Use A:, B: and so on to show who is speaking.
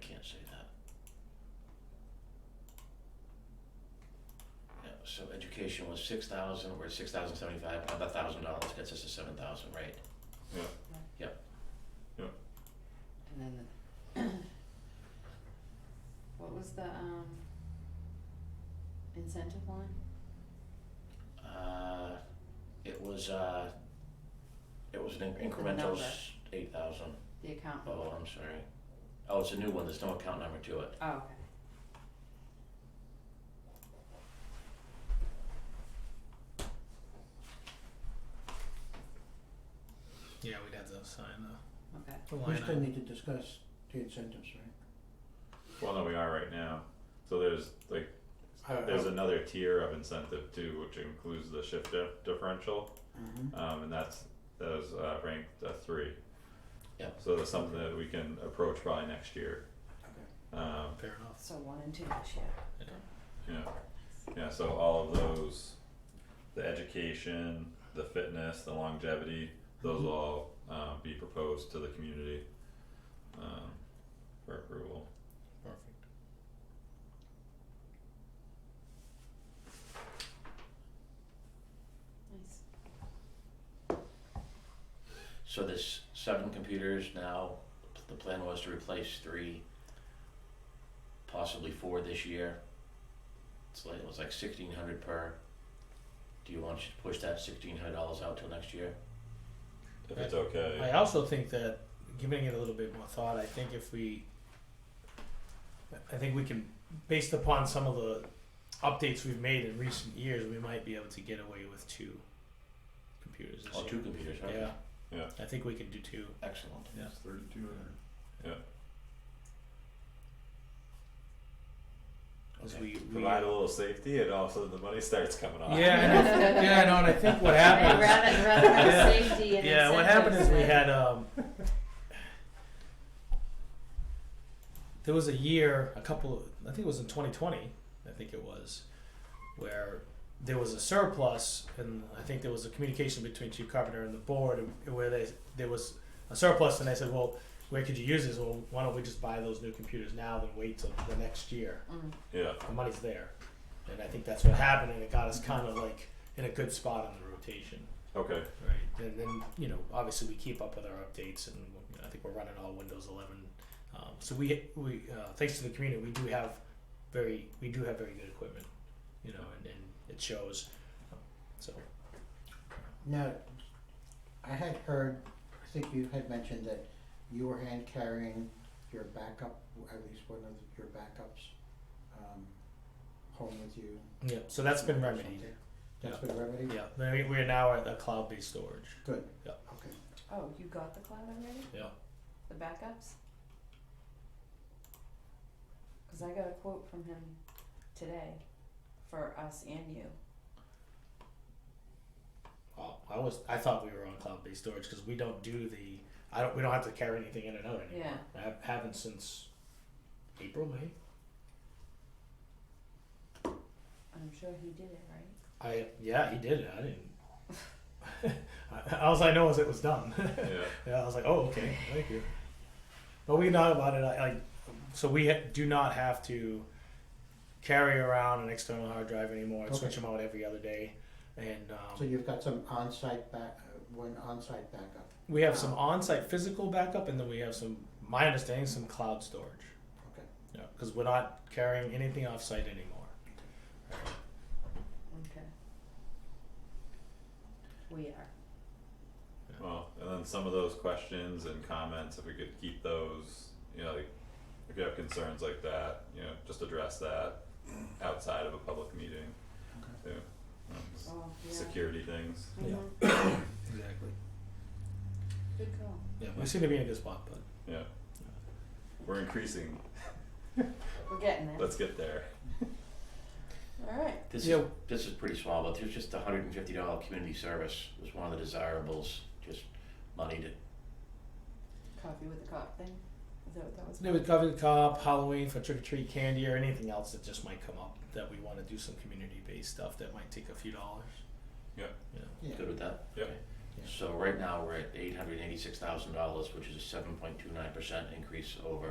A: can't say that. Yeah, so education was six thousand, we're at six thousand seventy-five, another thousand dollars gets us to seven thousand, right?
B: Yeah.
A: Yep.
C: And then the, what was the, um, incentive line?
A: Uh, it was, uh, it was an in- incremental
C: number.
A: eight thousand.
C: The account?
A: Oh, I'm sorry. Oh, it's a new one, there's no account number to it.
C: Oh, okay.
D: Yeah, we'd have to sign
C: Okay,
D: the, the
E: We
D: line
E: still
D: item.
E: need to discuss the incentives, right?
B: Well, no, we are right now. So there's like,
E: I- I-
B: there's another tier of incentive too, which includes the shift di- differential,
E: Mhm.
B: um, and that's, that was, uh, ranked a three.
A: Yep.
B: So that's something that we can approach probably next year.
E: Okay.
B: Um,
D: Fair enough.
C: so one and two this year.
D: Yeah.
B: yeah, yeah, so all of those, the education, the fitness, the longevity, those will all, um, be proposed to the community, um, for approval.
D: Perfect.
C: Nice.
A: So there's seven computers now, the plan was to replace three, possibly four this year. It's like, it was like sixteen hundred per. Do you want to push that sixteen hundred dollars out till next year?
B: If it's okay.
D: I also think that giving it a little bit more thought, I think if we, I think we can, based upon some of the updates we've made in recent years, we might be able to get away with two computers this
A: Oh,
D: year.
A: two computers, okay.
D: Yeah.
B: Yeah.
D: I think we could do two.
A: Excellent.
D: Yeah.
F: Thirty-two hundred.
D: Because
A: Okay.
D: we, we
B: provide a little safety, and all of a sudden the money starts coming off.
D: Yeah, I know. yeah, I know. And I think what
C: Right,
D: happened. is-
C: rather, rather
D: Yeah.
C: have safety and incentives.
D: yeah, what happened is we
C: than-
D: had um, there was a year, a couple, I think it was in 2020, I think it was, where there was a surplus, and I think there was a communication between Chief Carpenter and the board, where they there was a surplus, and they said, well, where could you use this? Well, why don't we just buy those new computers now than wait till the next year?
C: Mm,
B: Yeah,
D: The money's there, and I think that's what happened, and it got us kind of like in a good spot on the rotation.
B: Okay.
D: Right, and then you know, obviously we keep up with our updates, and we- I think we're running all Windows 11. Um, so we we uh, thanks to the community, we do have very we do have very good equipment, you know, and, and it shows. So
E: Now, I had heard, I think you had mentioned that you were hand carrying your backup, at least one of your backups, um, home with you.
D: yeah, so that's been
E: or
D: remedied.
E: something. That's been remedied?
D: Yeah, then we- we're now at a cloud-based storage.
E: Good.
D: Yeah.
E: Okay.
C: Oh, you got the cloud already?
D: Yeah.
C: The backups? Cause I got a quote from him today for us and you.
D: Well, I was I thought we were on cloud-based storage because we don't do the I don't we don't have to carry anything in and out anymore. I have, haven't since April May.
C: I'm sure he did it, right?
D: I yeah, he did it. I didn't. I- All I know is it was done.
B: yeah.
D: yeah, I was like, oh, okay, thank you. But we know about it. I, I so we ha- do not have to carry around an external hard drive anymore. I Switch them out every other day, and um,
E: So you've got some on-site back, uh, one on-site backup.
D: we have some on-site physical backup, and then we have some, my understanding, some cloud storage.
E: Okay.
D: Yeah, because we're not carrying anything off-site anymore.
C: Okay. We are.
B: Well, and then some of those questions and comments, if we could keep those, you know, like if you have concerns like that, you know, just address that outside of a public meeting. Too. Um, s-
C: Oh, yeah.
B: Security things.
D: Yeah.
C: Mhm.
D: Exactly.
C: Good call.
D: Yeah, we seem to be in a good spot, but
B: Yeah. We're increasing.
C: We're getting there.
B: Let's get there.
C: Alright.
A: This
D: Yeah.
A: is, this is pretty small, but there's just a hundred and fifty dollar community service was one of the desirables, just money to,
C: Coffee with the cop thing? Is that what that was?
D: Today with Coffee with Cop, Halloween for trick or treat candy, or anything else that just might come up that we want to do some community based stuff that might take a few dollars.
B: Yeah.
D: You know.
E: Yeah.
A: good with that?
B: Yep.
A: Okay. So right now, we're at eight hundred and eighty-six thousand dollars, which is a seven point two nine percent increase over